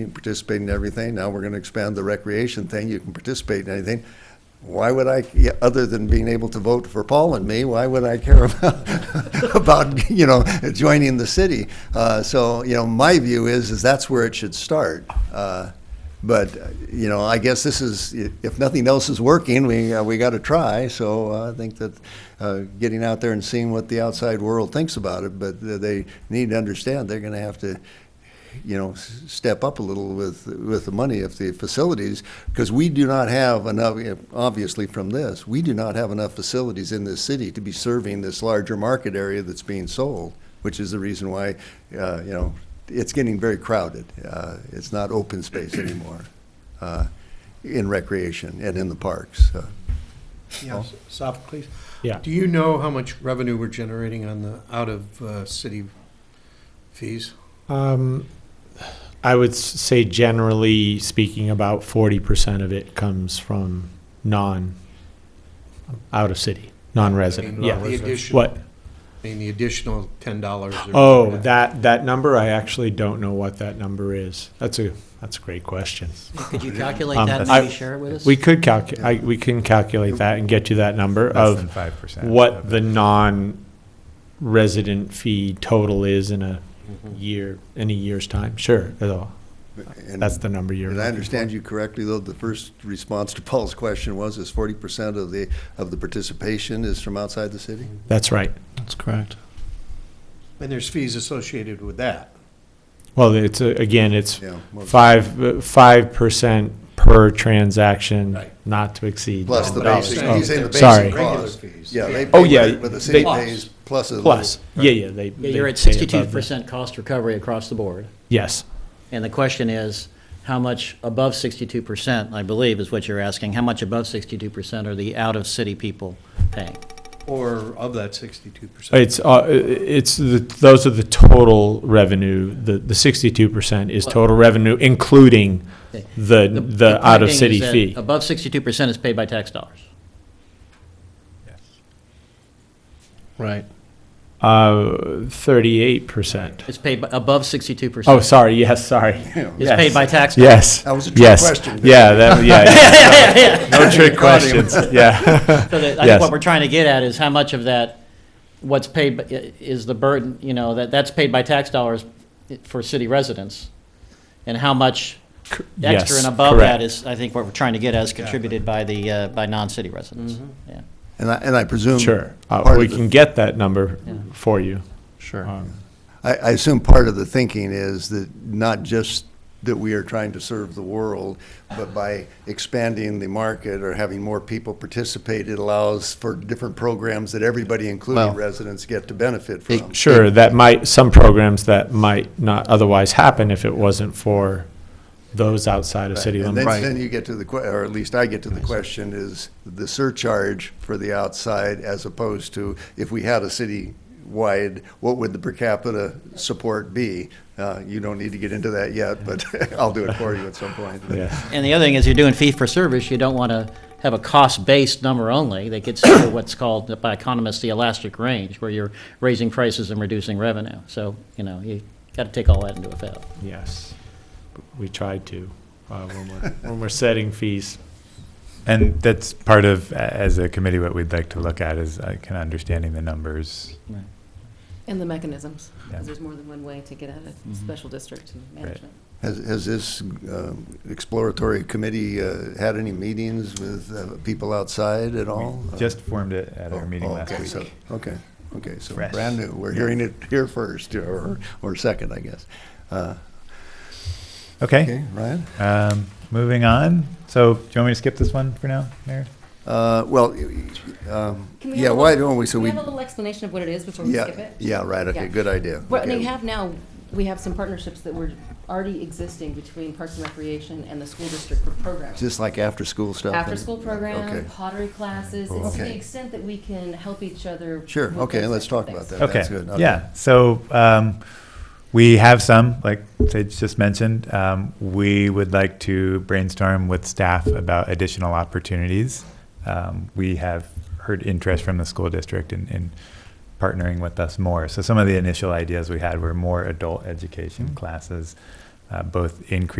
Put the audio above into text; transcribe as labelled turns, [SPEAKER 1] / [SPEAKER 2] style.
[SPEAKER 1] You can participate in everything. Now we're going to expand the recreation thing. You can participate in anything. Why would I, yeah, other than being able to vote for Paul and me, why would I care about, about you know, joining the city? Uh, so, you know, my view is, is that's where it should start. Uh, but, uh, you know, I guess this is, i- if nothing else is working, we, uh, we got to try. So uh, I think that uh, getting out there and seeing what the outside world thinks about it, but they need to understand they're going to have to you know, s- step up a little with, with the money if the facilities, because we do not have enough, you know, obviously from this, we do not have enough facilities in this city to be serving this larger market area that's being sold, which is the reason why, uh, you know, it's getting very crowded. Uh, It's not open space anymore uh, in recreation and in the parks. Uh,
[SPEAKER 2] Yes, Sophocles.
[SPEAKER 3] Oh. Yeah.
[SPEAKER 2] Do you know how much revenue we're generating on the, out of uh, city fees?
[SPEAKER 3] Um, I would s- say generally speaking, about forty percent of it comes from non, out of city,
[SPEAKER 2] I
[SPEAKER 3] non-resident,
[SPEAKER 2] mean,
[SPEAKER 3] yeah.
[SPEAKER 2] The addition, I
[SPEAKER 3] What,
[SPEAKER 2] mean, the additional ten dollars.
[SPEAKER 3] oh, that, that number, I actually don't know what that number is. That's a, that's a great question.
[SPEAKER 4] Could you calculate
[SPEAKER 3] Um,
[SPEAKER 4] that and
[SPEAKER 3] I-
[SPEAKER 4] maybe share it with us?
[SPEAKER 3] We could calcu, I, we can calculate that and get you that number
[SPEAKER 5] Less than
[SPEAKER 3] of
[SPEAKER 5] five percent.
[SPEAKER 3] what the non-resident fee total is in a
[SPEAKER 5] Mm-hmm.
[SPEAKER 3] year, in a year's time, sure, that'll-
[SPEAKER 1] and-
[SPEAKER 3] that's the number you're.
[SPEAKER 1] Did I
[SPEAKER 3] looking for.
[SPEAKER 1] understand you correctly, though, the first response to Paul's question was, is forty percent of the, of the participation is from outside the city?
[SPEAKER 3] That's right.
[SPEAKER 6] That's correct.
[SPEAKER 2] And there's fees associated with that.
[SPEAKER 3] Well, it's, uh, again, it's
[SPEAKER 1] Yeah. most-
[SPEAKER 3] five, uh, five percent per transaction,
[SPEAKER 2] Right.
[SPEAKER 3] not to exceed. Oh,
[SPEAKER 1] Plus the
[SPEAKER 2] But I'm
[SPEAKER 1] basic,
[SPEAKER 2] saying
[SPEAKER 1] he's saying the
[SPEAKER 2] they're
[SPEAKER 3] Sorry.
[SPEAKER 1] basic
[SPEAKER 2] Regular
[SPEAKER 1] cost.
[SPEAKER 2] fees.
[SPEAKER 1] Yeah, they
[SPEAKER 3] Oh,
[SPEAKER 1] pay,
[SPEAKER 3] yeah,
[SPEAKER 1] what it- what the city
[SPEAKER 3] they-
[SPEAKER 1] pays plus a little.
[SPEAKER 3] Plus, yeah, yeah, they.
[SPEAKER 4] Yeah,
[SPEAKER 3] they
[SPEAKER 4] You're at
[SPEAKER 3] pay above
[SPEAKER 4] sixty-two
[SPEAKER 3] that.
[SPEAKER 4] percent cost recovery across the board,
[SPEAKER 3] Yes,
[SPEAKER 4] and the question is, how much above sixty-two percent, I believe, is what you're asking, how much above sixty-two percent are the out-of-city people paying?
[SPEAKER 2] Or of that sixty-two percent.
[SPEAKER 3] it's, uh, it's, the- those are the total revenue, the, the sixty-two percent is total revenue, including
[SPEAKER 4] Okay.
[SPEAKER 3] the,
[SPEAKER 4] point
[SPEAKER 3] the
[SPEAKER 4] being
[SPEAKER 3] out-of-city
[SPEAKER 4] is that
[SPEAKER 3] fee.
[SPEAKER 4] Above sixty-two percent is paid by tax dollars.
[SPEAKER 6] Right.
[SPEAKER 3] Uh, thirty-eight percent.
[SPEAKER 4] It's paid by, above sixty-two
[SPEAKER 3] Oh,
[SPEAKER 4] percent
[SPEAKER 3] sorry, yes, sorry.
[SPEAKER 4] is
[SPEAKER 3] yes.
[SPEAKER 4] paid by tax. dollars.
[SPEAKER 3] Yes.
[SPEAKER 1] That was a trick
[SPEAKER 3] yes.
[SPEAKER 1] question.
[SPEAKER 3] Yeah, that, yeah, yeah.
[SPEAKER 4] Yeah, yeah, yeah.
[SPEAKER 3] No trick
[SPEAKER 1] Caught him.
[SPEAKER 3] questions, yeah.
[SPEAKER 4] So that- I think
[SPEAKER 3] Yes.
[SPEAKER 4] what we're trying to get at is how much of that, what's paid, by- i- is the burden, you know, that, that's paid by tax dollars for city residents, and how much extra
[SPEAKER 3] Yes,
[SPEAKER 4] and above that
[SPEAKER 3] correct.
[SPEAKER 4] is, I think what we're trying to get at is contributed by the, uh, by non-city residents. Yeah.
[SPEAKER 1] And I, and I presume.
[SPEAKER 3] Sure, Uh,
[SPEAKER 1] part
[SPEAKER 3] we
[SPEAKER 1] of the-
[SPEAKER 3] can get that number
[SPEAKER 4] Yeah.
[SPEAKER 3] for you.
[SPEAKER 6] Sure.
[SPEAKER 3] Um,
[SPEAKER 1] I, I assume part of the thinking is that not just that we are trying to serve the world, but by expanding the market or having more people participate, it allows for different programs that everybody, including
[SPEAKER 6] Well-
[SPEAKER 1] residents, get to benefit from.
[SPEAKER 3] Sure, that might, some programs that might not otherwise happen if it wasn't for those outside of city
[SPEAKER 1] And then,
[SPEAKER 3] limits.
[SPEAKER 6] Right.
[SPEAKER 1] then you get to the, que- or at least I get to the question, is the surcharge for the outside as opposed to if we had a city-wide, what would the per capita support be? Uh, you don't need to get into that yet, but I'll do it for you at some point.
[SPEAKER 3] Yeah.
[SPEAKER 4] And the other thing is, you're doing fee for service, you don't want to have a cost-based number only, that gets to what's called by economists the elastic range, where you're raising prices and reducing revenue. So, you know, you got to take all that into account.
[SPEAKER 3] Yes, we tried to, uh, when we're, when we're setting fees.
[SPEAKER 5] And that's part of, a- as a committee, what we'd like to look at is uh, kind of understanding the numbers.
[SPEAKER 7] And the mechanisms,
[SPEAKER 5] Yeah.
[SPEAKER 7] because there's more than one way to get at it,
[SPEAKER 1] Mm-hmm.
[SPEAKER 7] special district and management.
[SPEAKER 1] Has, has this um, exploratory committee uh, had any meetings with uh, people outside at all?
[SPEAKER 5] We Just formed it at our
[SPEAKER 1] Oh,
[SPEAKER 5] meeting
[SPEAKER 1] oh,
[SPEAKER 5] last
[SPEAKER 1] okay, so-
[SPEAKER 5] week.
[SPEAKER 1] Okay, okay, so
[SPEAKER 5] Fresh.
[SPEAKER 1] brand new. We're hearing it here first, or, or second, I guess. Uh,
[SPEAKER 5] Okay,
[SPEAKER 1] Okay, Ryan?
[SPEAKER 5] um, moving on. So do you want me to skip this one for now, Mayor?
[SPEAKER 1] Uh, Well, um,
[SPEAKER 7] Can we have
[SPEAKER 1] yeah,
[SPEAKER 7] a
[SPEAKER 1] why
[SPEAKER 7] little-
[SPEAKER 1] don't we, so
[SPEAKER 7] Can we
[SPEAKER 1] we,
[SPEAKER 7] have a little explanation of what it is before we skip
[SPEAKER 1] yeah,
[SPEAKER 7] it?
[SPEAKER 1] yeah, right, okay,
[SPEAKER 7] Yeah.
[SPEAKER 1] good idea.
[SPEAKER 7] What
[SPEAKER 1] Okay.
[SPEAKER 7] we have now, we have some partnerships that were already existing between Parks and Recreation and the school district for programs.
[SPEAKER 1] Just like after-school stuff? and-
[SPEAKER 7] After-school program,
[SPEAKER 1] Okay,
[SPEAKER 7] pottery classes, it's to
[SPEAKER 1] Okay.
[SPEAKER 7] the extent that we can help each other.
[SPEAKER 1] sure,
[SPEAKER 7] with
[SPEAKER 1] okay,
[SPEAKER 7] those
[SPEAKER 1] let's
[SPEAKER 7] types of
[SPEAKER 1] talk about
[SPEAKER 7] things.
[SPEAKER 1] that.
[SPEAKER 5] Okay.
[SPEAKER 1] That's good.
[SPEAKER 5] Yeah. So um, we have some, like Sage just mentioned. Um, we would like to brainstorm with staff about additional opportunities. Um, we have heard interest from the school district in, in partnering with us more. So some of the initial ideas we had were more adult education classes, uh, both increase.